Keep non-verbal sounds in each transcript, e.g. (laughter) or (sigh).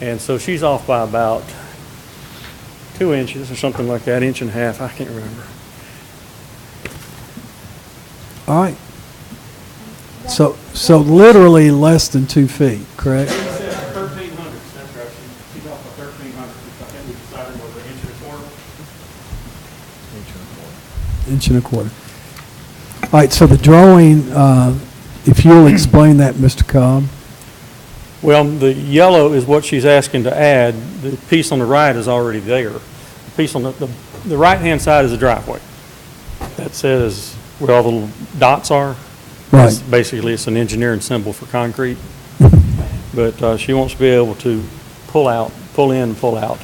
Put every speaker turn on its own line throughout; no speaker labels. And so she's off by about two inches or something like that, inch and a half, I can't remember.
All right. So, so literally less than two feet, correct?
Thirteen hundred, that's right, she's off by thirteen hundred, I think we decided was an inch and a quarter.
Inch and a quarter. All right, so the drawing, uh, if you'll explain that, Mr. Cobb.
Well, the yellow is what she's asking to add. The piece on the right is already there. The piece on the, the, the right-hand side is the driveway. That says where all the little dots are.
Right.
It's Basically, it's an engineering symbol for concrete. But, uh, she wants to be able to pull out, pull in, and pull out.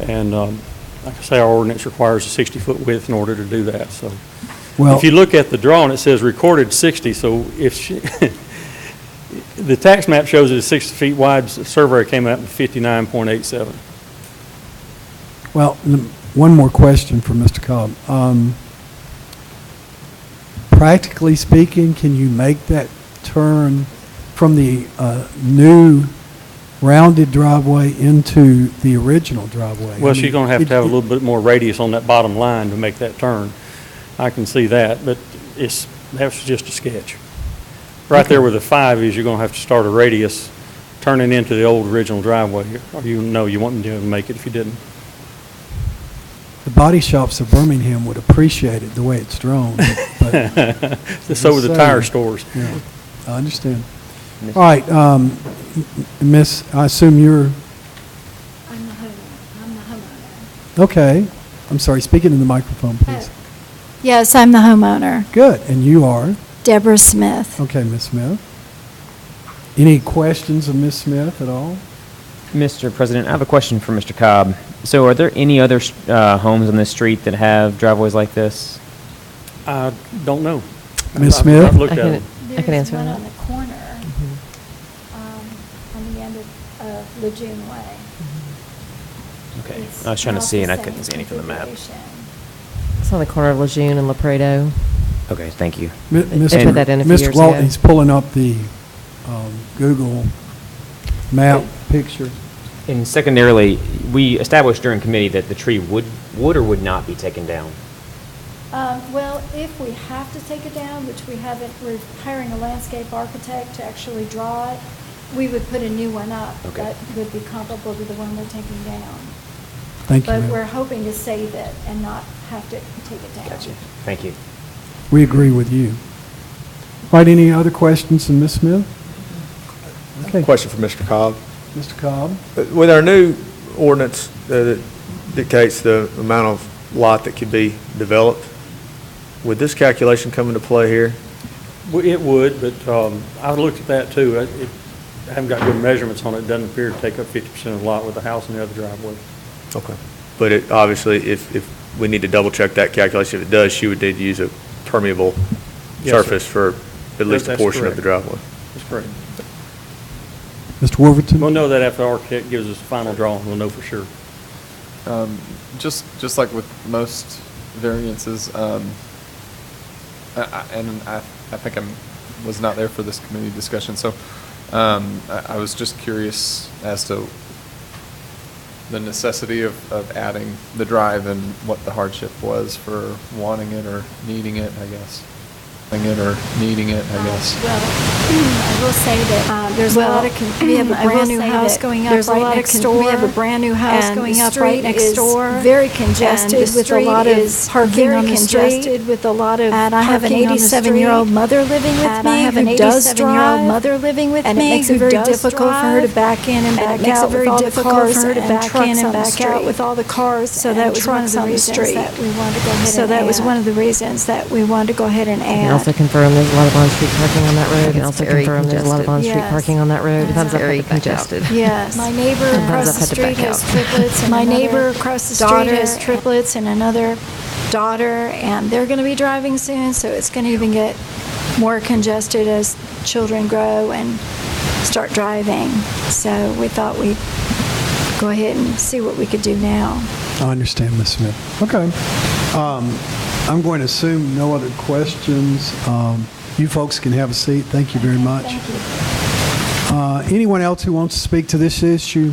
And, um, like I say, our ordinance requires a sixty-foot width in order to do that, so.
Well,
If you look at the drawing, it says recorded 60, so if she, (laughs) the tax map shows it is 60 feet wide, the surveyor came out with 59.87.
well, n- one more question for Mr. Cobb. Um, Practically speaking, can you make that turn from the uh, new rounded driveway into the original driveway? I
Well,
mean,
she's going to have
it-
to have a
it-
little bit more radius on that bottom line to make that turn. I can see that, but it's, that's just a sketch. Right there where the five is, you're going to have to start a radius turning into the old original driveway, or you know, you wouldn't be able to make it if you didn't.
The body shops of Birmingham would appreciate it the way it's drawn,
(laughs)
but
So with the tire stores.
yeah, I understand. All right, um, m- m- Miss, I assume you're,
I'm the homeowner. I'm the homeowner.
okay. I'm sorry, speaking in the microphone, please.
Oh. Yes, I'm the homeowner,
Good, and you are?
Deborah Smith.
Okay, Miss Smith. Any questions of Miss Smith at all?
Mr. President, I have a question for Mr. Cobb. So are there any other uh, homes on this street that have driveways like this?
I don't know.
Ms.
I've-
Smith?
I've looked
I
at
can-
it.
I can answer
There's one
that.
on the corner,
Mm-hmm.
Mm-hmm.
um, on the end of, of Lejeune Way.
Mm-hmm.
Okay,
It's
I was trying to
not
see
the
and I
same
couldn't see any from the map.
configuration.
It's on the corner of Lejeune and La Prado.
Okay, thank you.
Mi-
They
Mr.
put
that in a few
Mr.
years
Walton,
ago.
He's pulling up the um, Google map picture.
And secondarily, we established during committee that the tree would, would or would not be taken down.
Um, well, if we have to take it down, which we haven't, we're hiring a landscape architect to actually draw it, we would put a new one up.
Okay.
That would be comparable to the one we're taking down.
Thank you,
But
ma'am.
we're hoping to save it and not have to take it down.
Gotcha. Thank you.
We agree with you. All right, any other questions from Ms. Smith? Okay,
Question for Mr. Cobb.
Mr. Cobb?
Uh, With our new ordinance uh, that dictates the amount of lot that could be developed, would this calculation come into play here?
Well, It would, but um, I've looked at that too. I it- I haven't got good measurements on it. It Doesn't appear to take up 50% of the lot with the house and the other driveway.
Okay. But it, obviously, if, if we need to double check that calculation, if it does, she would need to use a permeable
Yes, sir.
surface for at least a
That's
portion of the
correct.
driveway.
That's correct.
Mr. Warverton?
We'll know that after the architect gives us the final drawing, we'll know for sure.
Um, just, just like with most variances, um, I, I, and I, I think I'm, was not there for this committee discussion, so, um, I, I was just curious as to the necessity of, of adding the drive and what the hardship was for wanting it or needing it, I guess. Wanting it or needing it, I guess.
Uh, Well, (clears throat) I will say that. uh,
There's a lot of, con- we (clears throat) have a brand-new house going up right next door.
We have a brand-new house
and the
going up right
street
next
is
door.
very congested
And the
with a lot
street
of
is
parking on the street.
Very congested with a lot of
And I have an
parking on the street.
87-year-old mother living with
And I
me
have an
who does
87-year-old
drive.
mother living with me
And it makes it
who
very
does
difficult for her to
drive.
back in and back
it makes it
out with
very
all the
difficult
cars
for her to
and
back in
trucks
and
on the
back out
street.
with all the cars
So that
and
was one of
trucks
the
on the
reasons
street.
that we wanted to go ahead
So
and
that was
add.
one of the reasons that we wanted to go ahead and
I can also
add.
confirm there's a lot of on-street parking on that road, and
It's
also
very
confirm there's a lot of
congested.
on-street
Yes.
parking on that road.
It's
Sometimes I've had to
very
back out.
congested.
Yes. My neighbor
Sometimes
across
I've
the
had to
street
back
has
(laughs)
out.
triplets. and
My
another
neighbor across the street
daughter
has
triplets and another daughter, and they're going to be driving soon, so it's going to even get more congested as children grow and start driving. So we thought we'd go ahead and see what we could do now.
I understand, Ms. Smith. Okay. Um, I'm going to assume no other questions. Um, You folks can have a seat. Thank you very much.
Thank you.
Uh, Anyone else who wants to speak to this issue,